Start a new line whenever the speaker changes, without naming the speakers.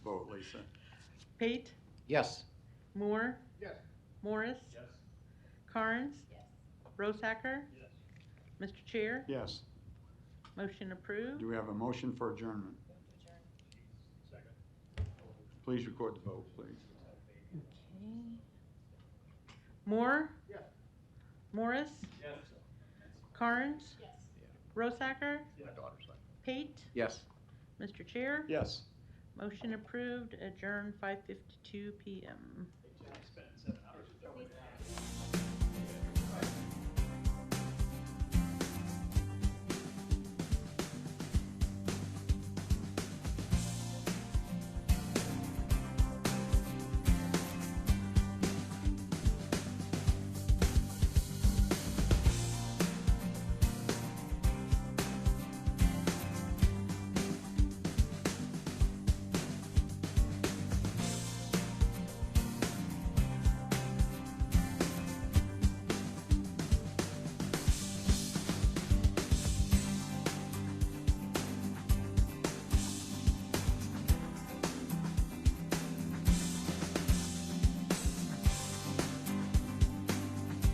Lisa.
Pate,
Yes.
Moore,
Yes.
Morris,
Yes.
Carnes,
Yes.
Rosehacker,
Yes.
Mr. Chair,
Yes.
motion approved.
Do we have a motion for adjournment?
Move to adjourn.
Second.
Please record the vote, please.
Okay. Moore?
Yes.
Morris,
Yes.
Carnes,
Yes.
Rosehacker,
My daughter's like.
Pate,
Yes.
Mr. Chair,
Yes.
motion approved, adjourned five fifty-two PM.